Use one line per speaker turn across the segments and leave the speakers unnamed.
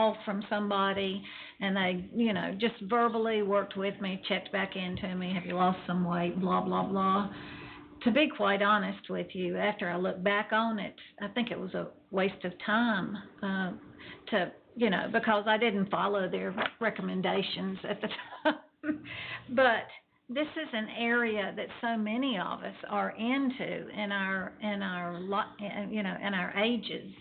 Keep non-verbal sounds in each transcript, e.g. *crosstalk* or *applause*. call from somebody and they, you know, just verbally worked with me, checked back into me, have you lost some weight, blah, blah, blah. To be quite honest with you, after I look back on it, I think it was a waste of time, uh, to, you know, because I didn't follow their recommendations at the *laughs* time. But this is an area that so many of us are into in our, in our li- uh, you know, in our ages.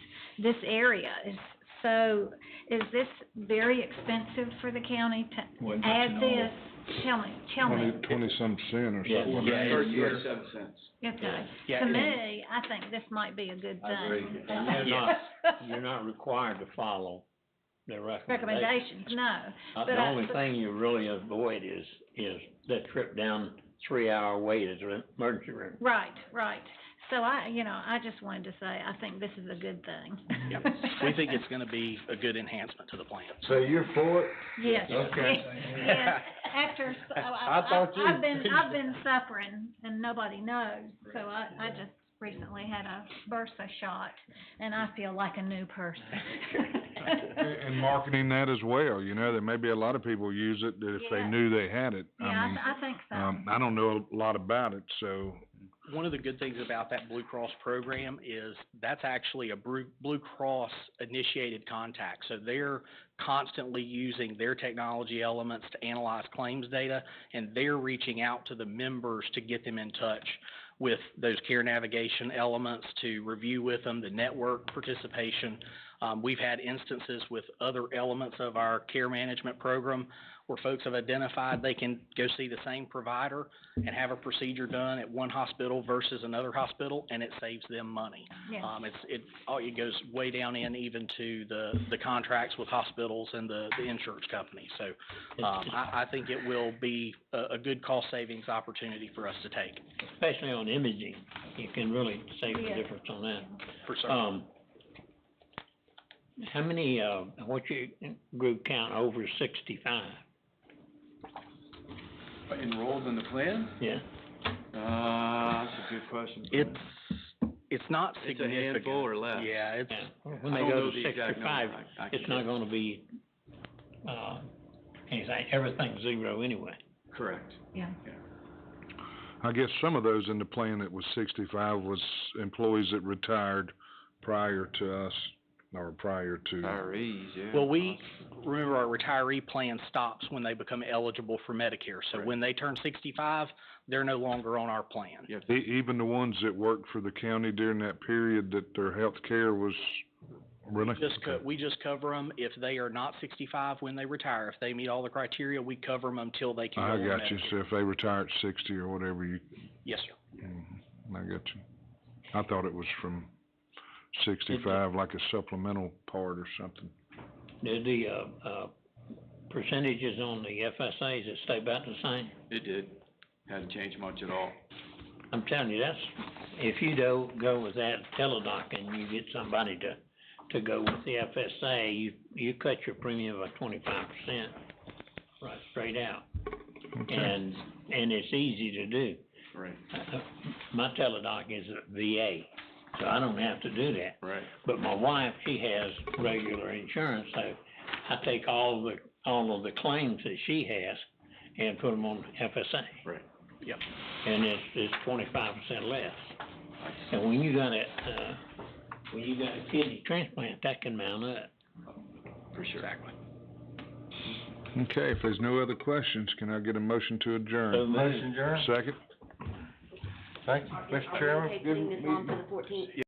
This area is so, is this very expensive for the county to
Wouldn't you
add
know?
this? Tell me, tell
Twenty,
me.
twenty-some cent or
Yeah,
something.
yeah,
Thirty,
yeah.
thirty-seven cents.
Okay.
Yeah,
To
and-
me, I think this might be a good
I agree.
thing.
And
*laughs*
you're not- You're not required to follow their recommendations.
Recommendations, no. but
Uh, The
I-
only thing you really avoid is, is that trip down three-hour wait at the emergency room.
Right, right. So I, you know, I just wanted to say, I think this is a good thing. *laughs*
Yep. We think it's gonna be a good enhancement to the plan.
So you're for it?
Yes.
Okay.
*laughs* Yes, after, so I,
I thought you-
I, I've been, I've been suffering and nobody knows. So I, I just recently had a bursa shot and I feel like a new person.
*laughs* And marketing that as well, you know, there may be a lot of people use it that if they
Yeah.
knew they had it.
Yeah,
I mean,
I, I think so.
um, I don't know a lot about it, so,
One of the good things about that Blue Cross program is that's actually a Blue, Blue Cross initiated contact. So they're constantly using their technology elements to analyze claims data and they're reaching out to the members to get them in touch with those care navigation elements to review with them, the network participation. Um, we've had instances with other elements of our care management program where folks have identified they can go see the same provider and have a procedure done at one hospital versus another hospital, and it saves them money.
Yeah.
Um, it's, it, oh, it goes way down in even to the, the contracts with hospitals and the, the insurance company. So, um, I, I think it will be a, a good cost savings opportunity for us to take,
Especially on imaging, you can really save
Yeah.
the difference on that.
for certain.
Um, how many, uh, what's your group count over sixty-five?
Enrolled in the plan?
Yeah,
Uh, that's a good question.
It's, it's not
It's a
significant.
handful or less.
Yeah, it's,
yeah.
I
When they
don't
go to
know the exact number.
sixty-five,
I- I
it's
can't-
not gonna be, uh, anything, everything's zero anyway.
Correct.
I guess some of those in the plan that was sixty-five was employees that retired prior to us, or prior to,
Retirees, yeah.
Well, we- remember our retiree plan stops when they become eligible for Medicare. So
Right.
when they turn sixty-five, they're no longer on our plan.
Yeah.
e- even the ones that worked for the county during that period that their health care was, really?
Just co-
Okay.
we just cover them if they are not sixty-five when they retire. If they meet all the criteria, we cover them until they can go
I
on
got you,
Medicare.
so if they retire at sixty or whatever, you
Yes, sir.
Mhm, I got you. I thought it was from sixty-five, like a supplemental part or something.
Did the, uh, uh, percentages on the FSAs that stay about the same?
It did. Hadn't changed much at all.
I'm telling you, that's, if you don't go with that teledoc and you get somebody to, to go with the FSA, you, you cut your premium by twenty-five percent, right, straight out.
Okay.
And, and it's easy to do.
Right,
Uh, My teledoc is a VA, so I don't have to do that.
right.
But my wife, she has regular insurance, so I take all the, all of the claims that she has and put them on FSA.
Right.
Yep.
And it's, it's twenty-five percent less.
I see.
And when you got a, uh, when you got a kidney transplant, that can mount up.
For sure.
Exactly.
Okay, if there's no other questions, can I get a motion to
So
adjourn?
moved.
Second?
Mr. Chairman, good meeting.